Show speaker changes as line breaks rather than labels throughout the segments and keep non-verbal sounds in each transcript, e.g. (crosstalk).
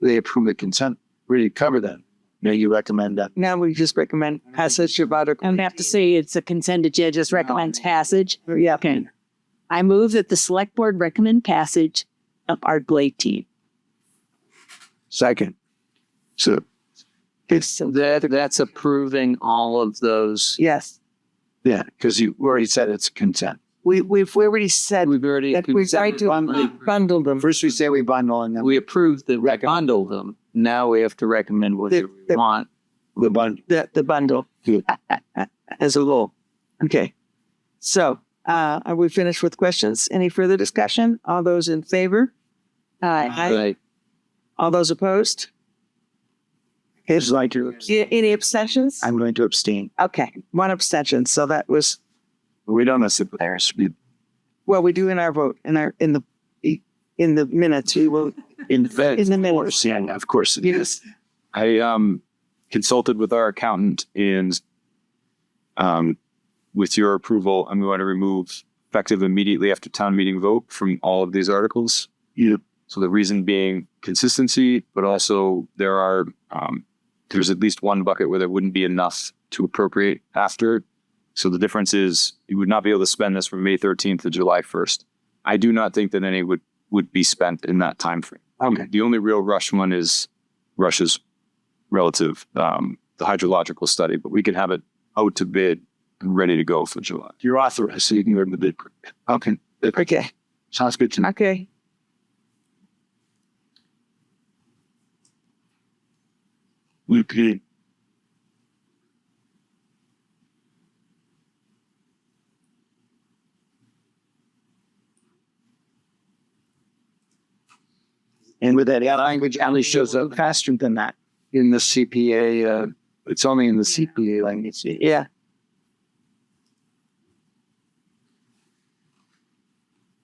they approve the consent, really cover that. Now you recommend that.
Now we just recommend passage of Article.
And have to say it's a consent agenda, just recommends passage.
Yeah.
Okay. I move that the select board recommend passage of Article eighteen.
Second. So
It's-
That, that's approving all of those.
Yes,
Yeah, because you already said it's consent.
we, we've already said
We've already.
that we're
said
going to
bundle-
bundle them.
First we say we bundle and then we,
We approved the
Recommend.
bundle them. Now we have to recommend what we
The- the-
want.
the bundle.
the, the bundle
Good.
(laughs) as a whole. Okay. So, uh, are we finished with questions? Any further discussion? All those in favor? Aye.
Right.
All those opposed?
It's like to,
A- Any abstentions?
I'm going to abstain.
Okay, one abstention. So that was,
We don't necessarily. There's-
well, we do in our vote, in our, in the, in the minutes, we will,
In fact,
in the
of
minutes.
course, yeah, of course. it is.
Yes.
I um, consulted with our accountant and um, with your approval, I'm going to remove effective immediately after town meeting vote from all of these articles.
Yep.
So the reason being consistency, but also there are um, there's at least one bucket where there wouldn't be enough to appropriate after. So the difference is you would not be able to spend this from May 13th to July 1st. I do not think that any would would be spent in that time frame.
Okay.
The only real rush one is Russia's relative, um, the hydrological study, but we can have it out to bid and ready to go for July.
You're authorized, so you can go to the bid. Okay,
Okay,
sounds good to me.
okay.
We could- And with that, that language only shows up faster than that in the CPA. Uh, it's only in the CPA language.
Yeah.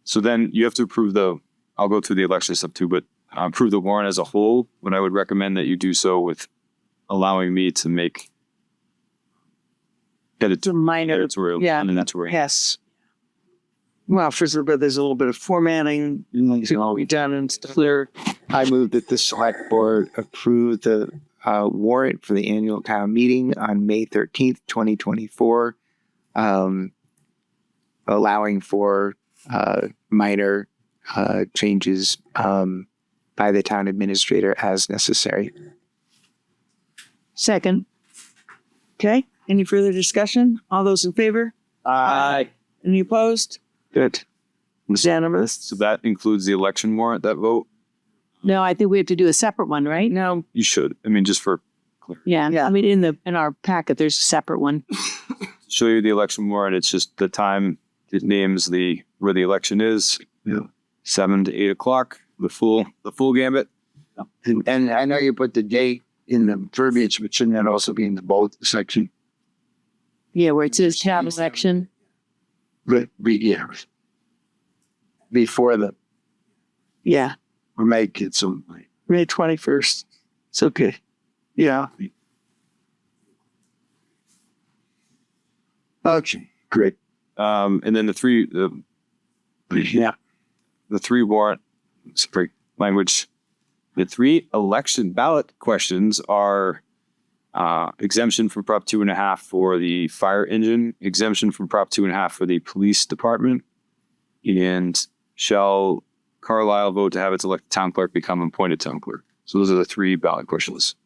So then you have to approve the, I'll go through the election stuff too, but uh, approve the warrant as a whole, but I would recommend that you do so with allowing me to make
To minor,
editorial,
yeah.
editorial.
yes. Well, first of all, there's a little bit of formatting to be done and stuff.
Clear.
Mm-hmm. I move that the select board approve the uh, warrant for the annual town meeting on May thirteenth, twenty twenty-four. Um, allowing for uh, minor uh, changes um, by the town administrator as necessary.
Second.
Okay, any further discussion? All those in favor?
Aye.
Any opposed?
Good.
Unanimous?
So that includes the election warrant, that vote?
No, I think we have to do a separate one, right?
No,
You should. I mean, just for
Yeah.
Yeah.
I mean, in the, in our packet, there's a separate one.
show you the election warrant. It's just the time it names the where the election is.
Yeah.
Seven to eight o'clock. The full the full gambit.
And, and I know you put the date in the verbiage, but shouldn't that also be in the bold section?
Yeah, where it says town election.
But, be- yeah. Before the,
yeah,
or make it some, like,
May twenty-first. It's okay.
yeah. Okay, great.
Um, and then the three the,
Yeah.
the three warrant sorry, language. The three election ballot questions are uh, exemption from Prop two and a half for the fire engine, exemption from Prop two and a half for the police department, and shall Carlisle vote to have its elected town clerk become appointed town clerk? So those are the three ballot questions.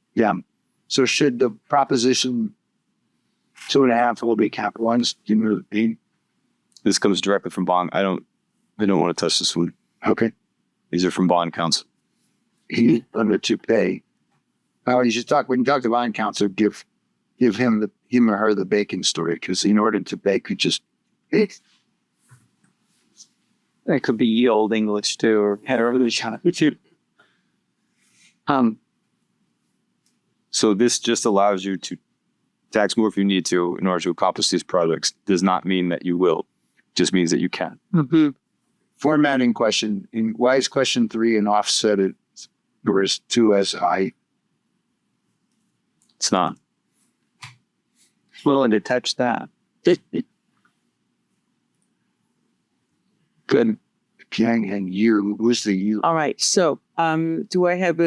So should the proposition two and a half will be capitalized? You know, be-
This comes directly from bond. I don't, I don't want to touch this one.
okay,
These are from bond council.
he under to pay. Oh, you should talk, when you talk to bond counsel, give, give him the, him or her the bacon story, because in order to bake, you just, it's,
That could be ye old English too, or however they shot it. Um,
So this just allows you to tax more if you need to in order to accomplish these projects. Does not mean that you will. Just means that you can.
Mm-hmm.
formatting question, in, why is question three an offset it, whereas two as I,
It's not.
willing to touch that. Good.
Pyongyang year, was the year?
All right, so, um, do I have a